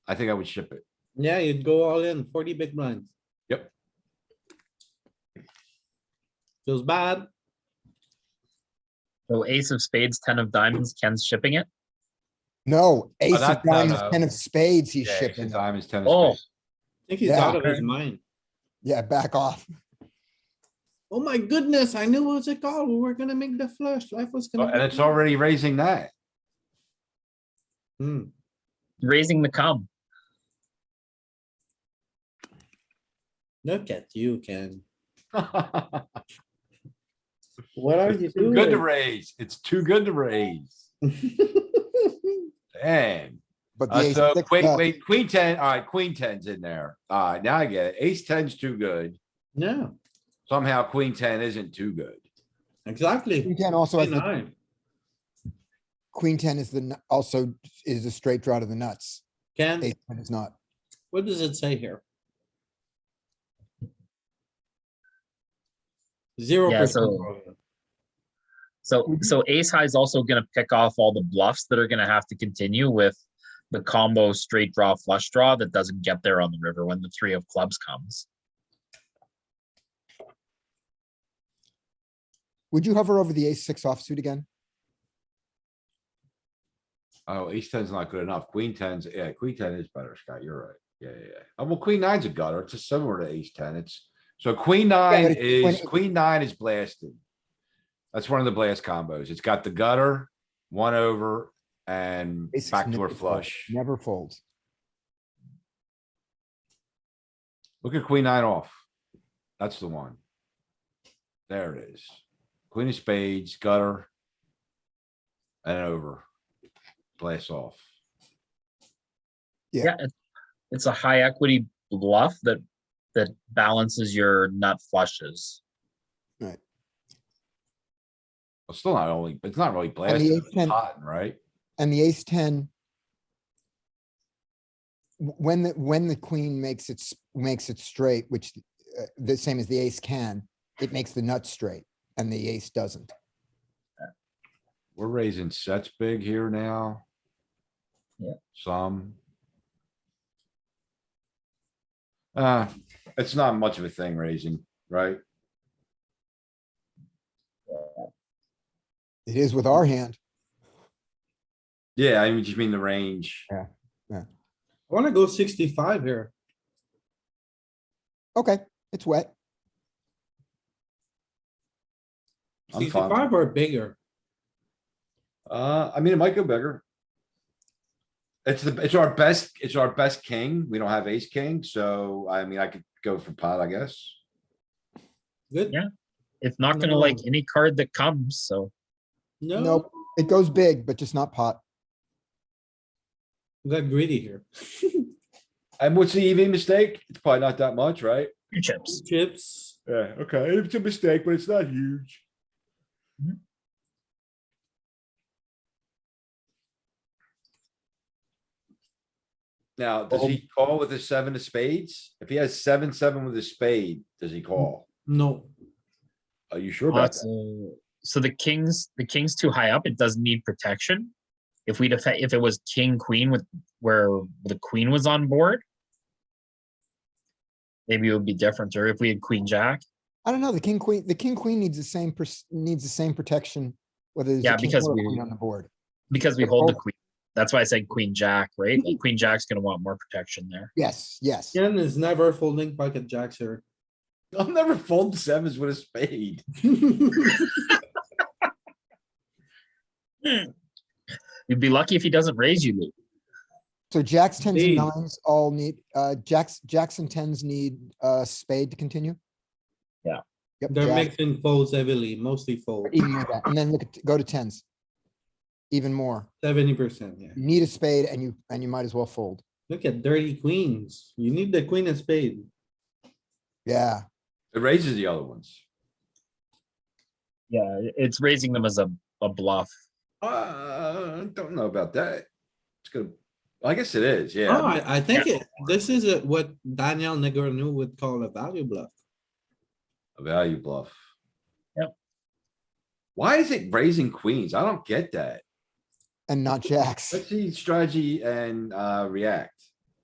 I think I would ship it. Yeah, you'd go all in, forty big blinds. Yep. Feels bad. So ace of spades, ten of diamonds, Ken's shipping it. Oh, No, ace of that- no, diamonds, no. ten of spades, he's Yeah, ace of shipping. diamonds, ten Oh. of spades. I think he's Yeah. out of his mind. Yeah, back off. Oh my goodness, I knew it was a call. We were gonna make the flush. Life was Oh, gonna. And be it's good. already raising that. Hmm, Raising the cum. look at you, Ken. What are you It's too Good to doing? raise. It's too good to raise. Damn. But the Uh, ace so six, wait, no. wait, queen ten, alright, queen ten's in there. Alright, now I get it. Ace ten's too good. Yeah, Somehow queen ten isn't too good. exactly. Queen ten also has, the- Nine. queen ten is the, nu- also is a straight draw to the nuts. Ken, Ace ten is not. what does it say here? Zero Yeah, percent. so- So Mhm. so ace high is also gonna pick off all the bluffs that are gonna have to continue with the combo straight draw flush draw that doesn't get there on the river when the three of clubs comes. Would you hover over the ace six offsuit again? Oh, ace ten's not good enough. Queen ten's, yeah, queen ten is better, Scott. You're right. Yeah, yeah, yeah. Oh, Well, queen nine's a gutter. It's just similar to ace ten. It's, so queen nine but it's when is, it- queen nine is blasted. That's one of the blast combos. It's got the gutter, one over, and Ace six backdoor never folds, flush. Never folds. Look at queen nine off. That's the one. There it is. Queen of spades, gutter. And over. Blast off. Yeah. Yeah, it- it's a high equity bluff that that balances your nut flushes. Well, still not only, it's not really the blasting, ace it's ten- potting, right? And the ace ten. w- When the, when the queen makes it, s- makes it straight, which uh, the same as the ace can, it makes the nut straight and the ace doesn't. We're raising sets big here now. Yeah. Some. Uh, it's not much of a thing raising, right? It is with our hand. Yeah, I mean, just mean the range. I wanna go sixty-five here. Okay, it's wet. I'm fine. Sixty-five or bigger. Uh, I mean, it might go bigger. It's the, it's our best, it's our best king. We don't have ace king, so I mean, I could go for pot, I guess. Good? Yeah. It's not gonna Mm-hmm. like No. any card that comes, so No, Nope, it goes big, but just not pot. we got greedy here. And what's the EV mistake? It's probably not that much, right? two chips. Chips. Yeah, okay, it's a mistake, but it's not huge. Now, does he call with a seven of spades? If he has seven, seven with a spade, does he call? No, Are you sure about that? Also, so the king's the king's too high up. It doesn't need protection. If we def- if it was king queen with where the queen was on board, maybe it would be different. Or if we had queen jack, I don't know, the king, queen, the king, queen needs the same, pers- needs the same protection, whether there's Yeah, a king because or a we- queen on the board. because we hold the Oh. queen. That's why I said queen jack, right? Like queen jack's gonna want more protection there. Yes, yes. Ken is never folding pocket jacks here. I'll never fold sevens with a spade. You'd be lucky if he doesn't raise you, Lou. So jacks, tens and Indeed. nines all need, uh, jacks, jacks and tens need, uh, spade to continue? Yeah. Yep, They're jack, mixing folds heavily, mostly fold, even more that, and then look, at go to tens. Even more, seventy percent, yeah. you need a spade and you, and you might as well fold. Look at dirty queens. You need the queen of spade. Yeah, It raises the other ones. Yeah, it's raising them as a, a bluff. Uh, don't know about that. It's gonna, I guess it is, Oh, yeah. I, I think it- this is a- what Daniel Negreanu would call a value bluff. A value bluff. Yep. Why is it raising queens? I don't get that. and not jacks. Let's see strategy and, uh, react.